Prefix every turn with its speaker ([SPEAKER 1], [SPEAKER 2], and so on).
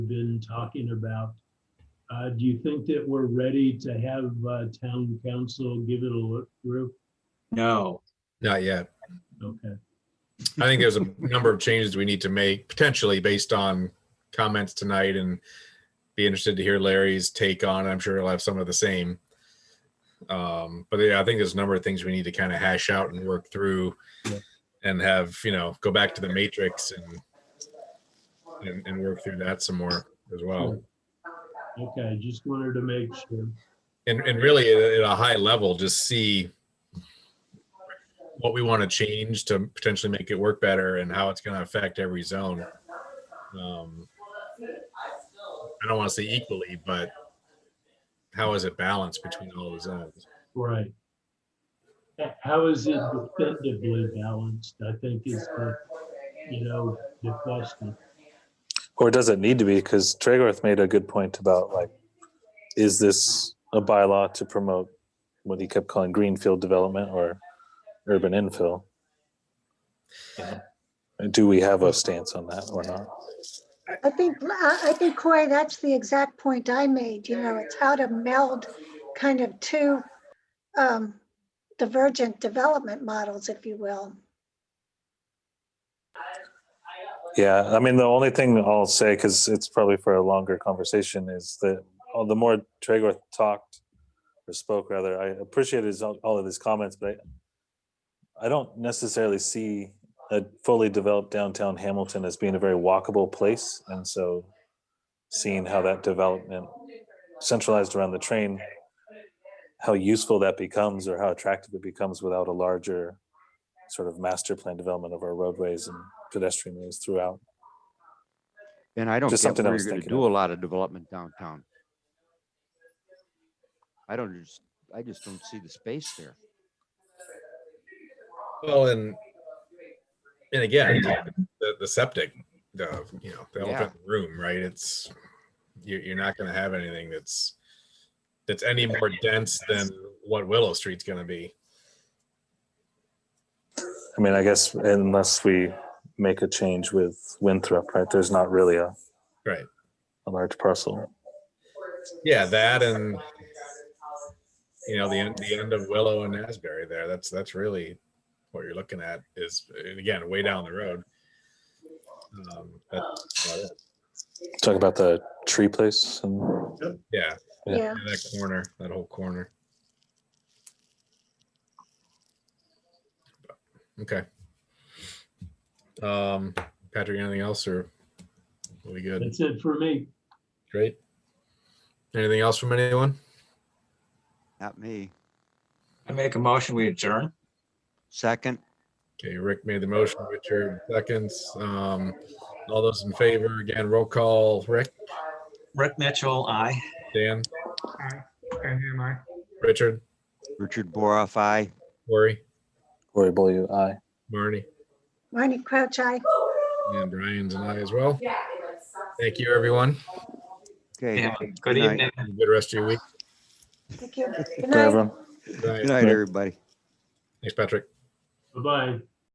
[SPEAKER 1] been talking about. Uh, do you think that we're ready to have, uh, town council give it a look through?
[SPEAKER 2] No,
[SPEAKER 3] Not yet.
[SPEAKER 1] Okay,
[SPEAKER 3] I think there's a number of changes we need to make potentially based on comments tonight and be interested to hear Larry's take on. it. I'm sure he'll have some of the same. Um, but yeah, I think there's a number of things we need to kind of hash out and work through
[SPEAKER 1] Yeah.
[SPEAKER 3] and have, you know, go back to the matrix and and, and work through that some more as well.
[SPEAKER 1] okay, just wanted to make sure.
[SPEAKER 3] and and really at, at a high level just see what we want to change to potentially make it work better and how it's going to affect every zone um, i don't want to say equally but how is it balanced between all the zones
[SPEAKER 1] Right. How is it definitively balanced, I think is the, you know, the question.
[SPEAKER 4] Or does it need to be? Because Tregorth made a good point about like, is this a bylaw to promote what he kept calling greenfield development or urban infill? You know, And do we have a stance on that or not?
[SPEAKER 5] I think, I I think Corey, that's the exact point I made, you know, it's how to meld kind of two um, divergent development models, if you will.
[SPEAKER 4] Yeah, I mean, the only thing I'll say, because it's probably for a longer conversation, is that oh, the more Tregorth talked or spoke, rather, I appreciated his, all of his comments, but I, I don't necessarily see a fully developed downtown Hamilton as being a very walkable place. And so seeing how that development centralized around the train, how useful that becomes or how attractive it becomes without a larger sort of master plan development of our roadways and pedestrian ways throughout.
[SPEAKER 6] And I don't
[SPEAKER 4] Just
[SPEAKER 6] get
[SPEAKER 4] something I
[SPEAKER 6] where
[SPEAKER 4] was
[SPEAKER 6] you're gonna
[SPEAKER 4] thinking
[SPEAKER 6] do a
[SPEAKER 4] of.
[SPEAKER 6] lot of development downtown. I don't just, I just don't see the space there.
[SPEAKER 3] well and and again the, the septic the you know the elephant in the room right it's you're, you're not going to have anything that's that's any more dense than what willow street's going to be
[SPEAKER 4] I mean, I guess unless we make a change with Winthrop, right? There's not really a
[SPEAKER 3] Right.
[SPEAKER 4] a large parcel.
[SPEAKER 3] Yeah, that and you know the end, the end of Willow and Asbury there. That's that's really what you're looking at is and again way down the road. Um, that's about it.
[SPEAKER 4] Talk about the tree place and
[SPEAKER 3] yeah,
[SPEAKER 4] Yeah.
[SPEAKER 5] Yeah,
[SPEAKER 3] that corner, that whole corner. Okay. Um, Patrick, anything else or are we good?
[SPEAKER 1] That's it for me.
[SPEAKER 3] Great. Anything else from anyone?
[SPEAKER 6] Not me.
[SPEAKER 2] I make a motion, we adjourn.
[SPEAKER 6] Second,
[SPEAKER 3] Okay, Rick made the motion, Richard seconds. Um, all those in favor, again, roll call, Rick,
[SPEAKER 2] Rick Mitchell, aye.
[SPEAKER 3] Dan,
[SPEAKER 7] Aye. Van Huyen, aye.
[SPEAKER 3] Richard,
[SPEAKER 6] Richard Boroff, I.
[SPEAKER 3] Corey,
[SPEAKER 4] Cory Beaulieu, aye.
[SPEAKER 3] Marnie,
[SPEAKER 5] Marnie Crouch, I.
[SPEAKER 3] and Brian's and I as well. Thank you, everyone.
[SPEAKER 6] Okay,
[SPEAKER 2] Yeah, Good
[SPEAKER 6] night.
[SPEAKER 2] evening.
[SPEAKER 3] Have a Good rest of your week.
[SPEAKER 5] Thank you. Good
[SPEAKER 4] Good
[SPEAKER 5] night.
[SPEAKER 4] everyone.
[SPEAKER 3] Good
[SPEAKER 6] good
[SPEAKER 3] night.
[SPEAKER 6] night, everybody.
[SPEAKER 3] Thanks, Patrick.
[SPEAKER 1] Bye-bye.